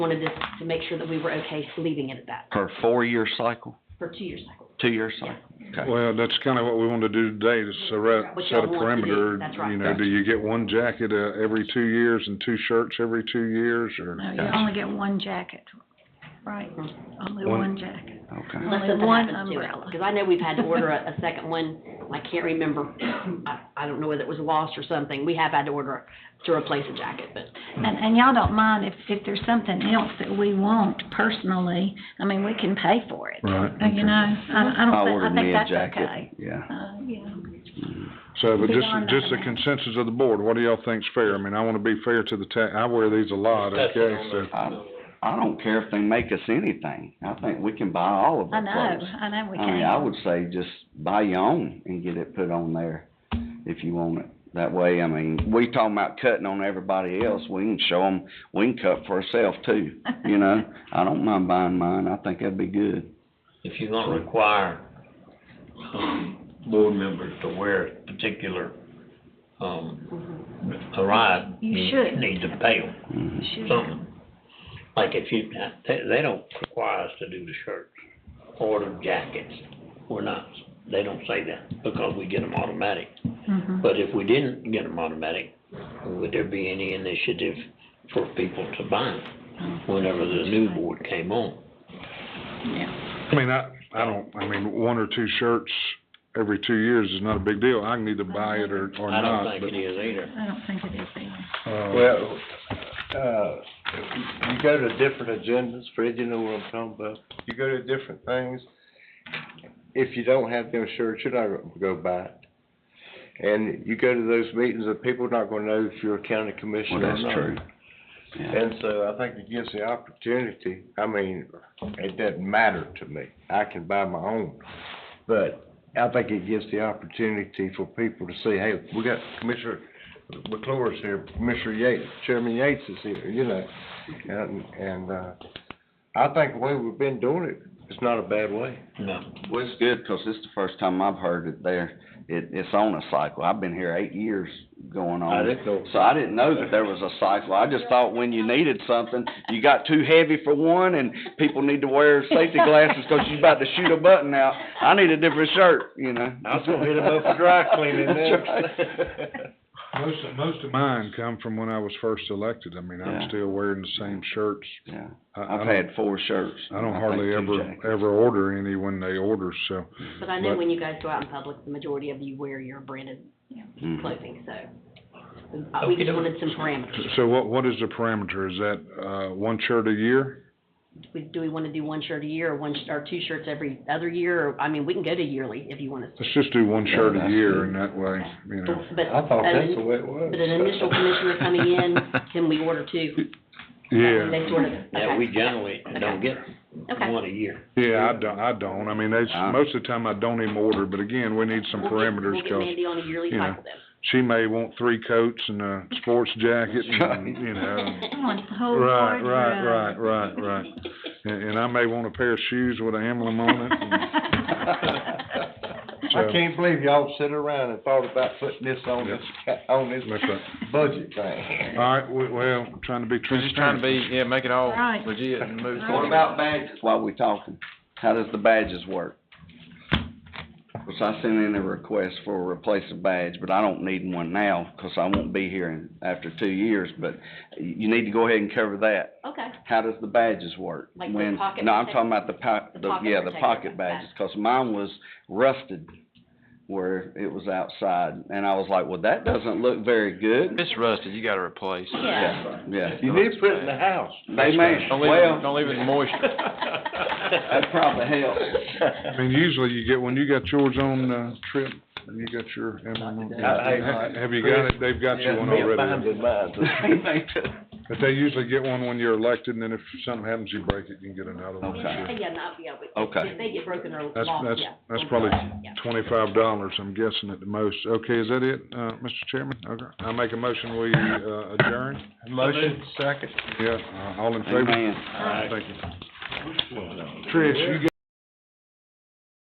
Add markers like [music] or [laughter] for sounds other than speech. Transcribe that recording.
wanted this to make sure that we were okay leaving it at that For a four-year cycle, for two years cycle. two-year cycle? Okay. Well, that's kinda what we wanna do today, is set a, What y'all set a want to do, perimeter, that's right. you know, do you get one jacket, uh, every two years and two shirts every two years, or? No, you Gotcha. only get one jacket, right, only One- one jacket. Okay. Unless Only something one happens to it. umbrella. Cause I know we've had to order a, a second one, I can't remember, [clears throat] I, I don't know whether it was lost or something, we have had to order to replace a jacket, but And, and y'all don't mind if, if there's something else that we want personally, I mean, we can pay for it. Right, Uh, You know, I, I I don't ordered me think, a I think that's jacket, okay. yeah. Uh, yeah. So, but just, Beyond just the that. consensus of the board, what do y'all think's fair? I mean, I wanna be fair to the ta- I wear these a lot, okay, so. I, I don't care if they make us anything. I think we can buy all of I our know, clothes. I know we I mean, I can. would say just buy your own and get it put on there if you want it. That way, I mean, we talking about cutting on everybody else, we can show them, we can cut for ourselves too, you [laughs] know? I don't mind buying mine, I think that'd be good. if you're gonna require, um, board members to wear a particular, um, a ride. You should. Need to pay them Mhm. Sure. something. Like if you, they, they don't require us to do the shirts or the jackets. We're not, they don't say that because we get them automatic. Mhm. But if we didn't get them automatic, would there be any initiative for people to buy them whenever the new board came on? Yeah. I mean, I, I don't, I mean, one or two shirts every two years is not a big deal. I can either buy it or, or I don't not, think but, it is either. I don't think it is either. uh, Well, uh, you go to different agendas, Fred, you know what I'm talking about. You go to different things. If you don't have them shirts, you're not gonna go buy it. And you go to those meetings, and people are not gonna know if you're a county Well, commissioner or that's not. true. Yeah. And so I think it gives the opportunity, I mean, it doesn't matter to me, I can buy my own. But I think it gives the opportunity for people to see, hey, we got Commissioner McClure's here, Commissioner Yates, Chairman Yates is here, you know? And, and, uh, I think the way we've been doing it, it's not a bad way. No. Well, it's good, 'cause this is the first time I've heard it there. It, it's on a cycle. I've been here eight years going on. I didn't know. So I didn't know that there was a cycle. I just thought when you needed something, you got too heavy for one and people need to wear safety glasses 'cause you're about to shoot a button out. I need a different shirt, you know? I was gonna hit him up for dry [laughs] cleaning That's right. [laughs] then. most, most of mine come from when I was first elected. I mean, Yeah. I'm still wearing the same shirts. Yeah, I- I I've don't- had four shirts. I don't think hardly two ever, jackets. ever order any when they order, so. But I know But- when you guys go out in public, the majority of you wear your branded Mhm. clothing, so. uh, We just Okey-doke. wanted some parameters. So what, what is the parameter? Is that, uh, one shirt a year? We- Do we wanna do one shirt a year or one, sh- or two shirts every other year? Or, I mean, we can go to yearly if you want us to. Let's just do one Yeah, shirt a that's year good. and that way, you know. But, I thought an- that's the way it was. but an initial [laughs] commissioner coming in, can we order two? Yeah, They sort of, Yeah, we okay, generally don't get okay. one [laughs] [laughs] a year. yeah, I don't, I don't. I mean, that's, Uh. most of the time I don't even order, but again, we need some We'll get- parameters, We'll get cause Mandy on a yearly you know, cycle then. she may want three coats and a sports jacket and, [laughs] you know. I want the whole Right, board right, right, around. right, right. And, and I may want a pair of shoes with an emblem [laughs] on it. and- I So- can't believe y'all sit around and thought about putting this on this, on this That's right. budget thing. All right, we- well, trying to be We're just trying transparent. to be, yeah, make it all Right. legit and move What forward. about badges while we talking? How does the badges work? Cause I sent in a request for a replacement badge, but I don't need one now, cause I won't be here in, after two years, but you need to go ahead and cover that. Okay, How does the badges work? Like the When- pocket No, I'm protector- talking about the po- the the, pocket yeah, the protector, pocket that- badges, cause mine was rusted where it was outside, and I was like, well, that doesn't look very If good. It's rusted, you gotta replace it. yeah. Yeah, You need to put it in the house. they may, Don't leave it, well, don't leave it in Oh, [laughs] moisture. that probably helps. I mean, usually you get, when you got yours on, uh, trip, and you got your emblem on. Hey, Ha- Have you got it? They've got you one Yeah, me already. and mine did mine. But they usually get one when you're elected, and then if something happens, you break it, you can get another one. Okay. Yeah, not, yeah, but. Okay. If they get broken or That's, lost, that's, yeah. that's we'll do probably it, yeah. twenty-five dollars, I'm guessing at the most. Okay, is that it, uh, Mr. Chairman? Okay, I make a motion, we, uh, adjourn? Motion second. Yeah, uh, all in favor? Amen. Thank you. Trish, you